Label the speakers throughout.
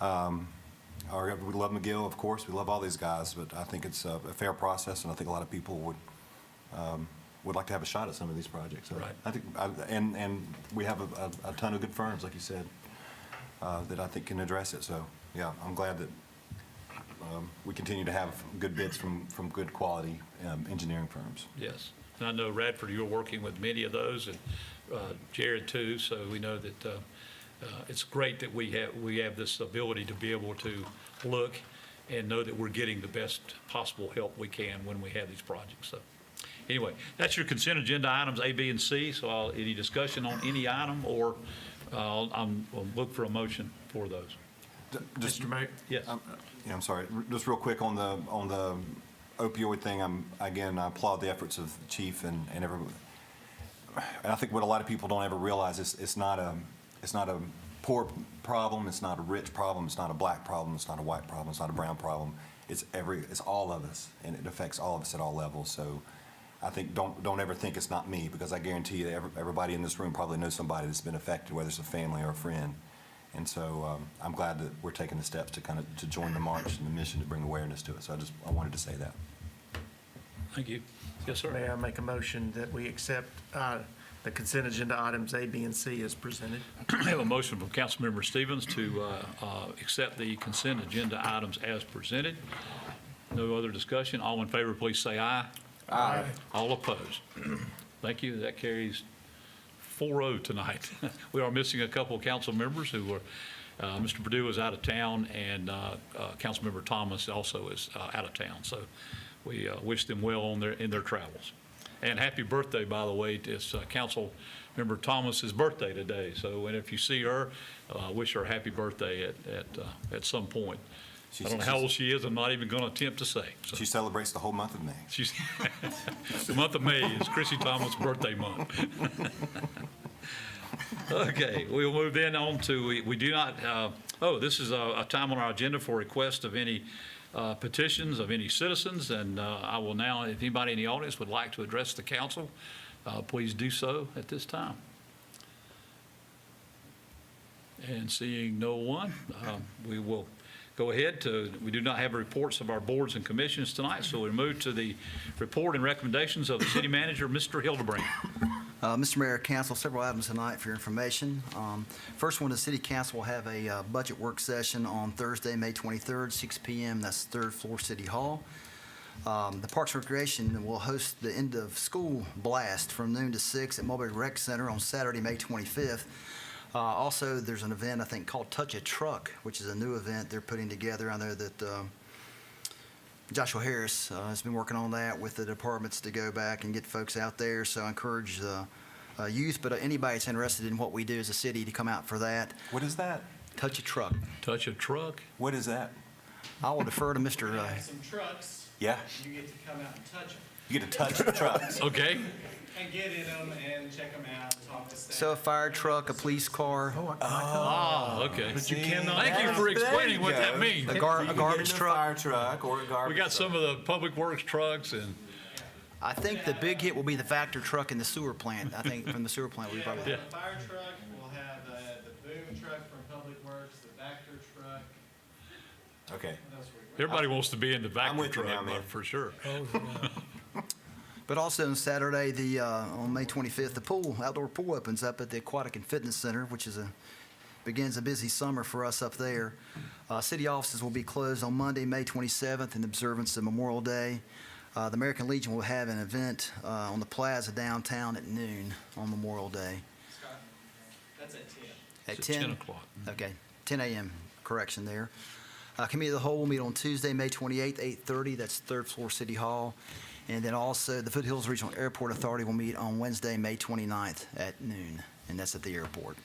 Speaker 1: Um, our- We love McGill, of course, we love all these guys, but I think it's a a fair process, and I think a lot of people would, um, would like to have a shot at some of these projects. So
Speaker 2: Right.
Speaker 1: I think, I- and, and we have a- a a ton of good firms, like you said, uh, that I think can address it, so, yeah, I'm glad that um, we continue to have good bids from, from good quality um, engineering firms.
Speaker 2: Yes. And I know Radford, you're working with many of those, and uh, Jared too, so we know that uh, uh, it's great that we have, we have this ability to be able to look and know that we're getting the best possible help we can when we have these projects. So anyway, that's your consent agenda items, A, B, and C. So I'll- any discussion on any item, or uh, I'll I'm- I'll look for a motion for those.
Speaker 1: D- just-
Speaker 3: Mr. Mayor?
Speaker 2: Yes.
Speaker 1: Um, Yeah, I'm sorry. R- Just real quick on the, on the opioid thing, I'm, again, I applaud the efforts of the chief and, and everyone. And I think what a lot of people don't ever realize is it's not a, it's not a poor problem, it's not a rich problem, it's not a black problem, it's not a white problem, it's not a brown problem. It's every, it's all of us, and it affects all of us at all levels. So I think, don't, don't ever think it's not me, because I guarantee you, every- everybody in this room probably knows somebody that's been affected, whether it's a family or a friend. And so um, I'm glad that we're taking the steps to kind of, to join the march and the mission to bring awareness to it. So I just, I wanted to say that.
Speaker 2: Thank you. Yes, sir.
Speaker 3: May I make a motion that we accept uh, the consent agenda items A, B, and C as presented?
Speaker 2: I have a motion from Councilmember Stevens to uh, uh, accept the consent agenda items as presented. No other discussion. All in favor, please say aye. Aye. All opposed. Thank you. That carries 4-0 tonight. We are missing a couple of council members who were, uh, Mr. Purdue is out of town, and uh, uh, Councilmember Thomas also is uh, out of town. So we uh, wish them well on their, in their travels. And happy birthday, by the way, it's uh, Councilmember Thomas's birthday today. So, and if you see her, uh, wish her a happy birthday at, at, uh, at some point. I don't know how old she is, I'm not even going to attempt to say. So
Speaker 1: She celebrates the whole month of May.
Speaker 2: She's, the month of May is Chrissy Thomas' birthday month. Okay, we'll move then on to, we- we do not, uh, oh, this is a a time on our agenda for request of any uh, petitions of any citizens, and uh, I will now, if anybody in the audience would like to address the council, uh, please do so at this time. And seeing no one, um, we will go ahead to, we do not have reports of our boards and commissions tonight, so we move to the report and recommendations of the city manager, Mr. Hildebrand.
Speaker 4: Uh, Mr. Mayor, Council, several items tonight for your information. Um, First one, the City Council will have a uh, budget work session on Thursday, May 23rd, 6 PM. That's third floor City Hall. Um, The Parks and Recreation will host the end-of-school blast from noon to six at Mulberry Rec Center on Saturday, May 25th. Uh, Also, there's an event, I think, called Touch a Truck, which is a new event they're putting together. I know that um, Joshua Harris uh, has been working on that with the departments to go back and get folks out there. So I encourage the uh, youth, but anybody that's interested in what we do as a city to come out for that.
Speaker 1: What is that?
Speaker 4: Touch a truck.
Speaker 2: Touch a truck.
Speaker 1: What is that?
Speaker 4: I will defer to Mr.
Speaker 5: They
Speaker 4: uh,
Speaker 5: have some trucks,
Speaker 1: Yeah?
Speaker 5: you get to come out and touch them,
Speaker 1: You get to touch the trucks.
Speaker 2: Okay.
Speaker 5: and get in them and check them out, talk to staff.
Speaker 4: So a fire truck, a police car,
Speaker 2: Ah, okay.
Speaker 3: you cannot-
Speaker 2: Thank you for explaining what that
Speaker 1: There you
Speaker 2: means.
Speaker 4: a gar-
Speaker 1: You can
Speaker 4: a
Speaker 1: get in
Speaker 4: garbage truck.
Speaker 1: Fire truck or a garbage.
Speaker 2: We got some of the public works trucks and,
Speaker 4: I think the big hit will be the factor truck in the sewer plant. I think from the sewer plant, we
Speaker 5: Yeah, we'll
Speaker 4: probably.
Speaker 5: have a fire truck, we'll have uh, the boom truck from Public Works, the Vector truck,
Speaker 1: truck. Okay.
Speaker 5: what else we got?
Speaker 2: everybody wants to be in the back
Speaker 1: I'm
Speaker 2: of the
Speaker 1: with you now,
Speaker 2: truck,
Speaker 1: man.
Speaker 2: but for sure.
Speaker 4: But also on Saturday, the, uh, on May 25th, the pool, outdoor pool opens up at the Aquatic and Fitness Center, which is a, begins a busy summer for us up there. Uh, City offices will be closed on Monday, May 27th in observance of Memorial Day. Uh, The American Legion will have an event uh, on the plaza downtown at noon on Memorial Day.
Speaker 5: Scott, That's at ten.
Speaker 4: At
Speaker 2: It's at
Speaker 4: 10?
Speaker 2: 10 o'clock.
Speaker 4: Okay, 10 a.m., correction there. Uh, Committee of the Whole will meet on Tuesday, May 28th, 8:30, that's third floor City Hall. And then also, the Foothills Regional Airport Authority will meet on Wednesday, May 29th at noon, and that's at the airport.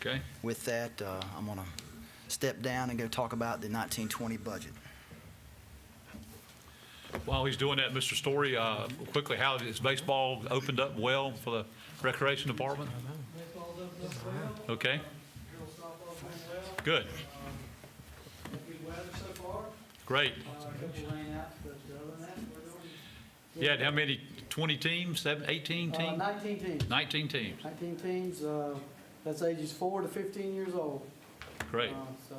Speaker 2: Okay.
Speaker 4: With that, uh, I'm going to step down and go talk about the 1920 budget.
Speaker 2: While he's doing that, Mr. Story, uh, quickly, how is baseball opened up well for the recreation department?
Speaker 5: Baseball's open up well,
Speaker 2: Okay,
Speaker 5: girls softball's doing well,
Speaker 2: good,
Speaker 5: good weather so far,
Speaker 2: great.
Speaker 5: uh, a couple rain outs, but other than that, we're doing.
Speaker 2: Yeah, and how many, 20 teams, Seven, 18
Speaker 6: Uh,
Speaker 2: teams?
Speaker 6: 19 teams,
Speaker 2: 19 teams,
Speaker 6: 19 teams, uh, that's ages four to 15 years old.
Speaker 2: great.
Speaker 6: Uh, So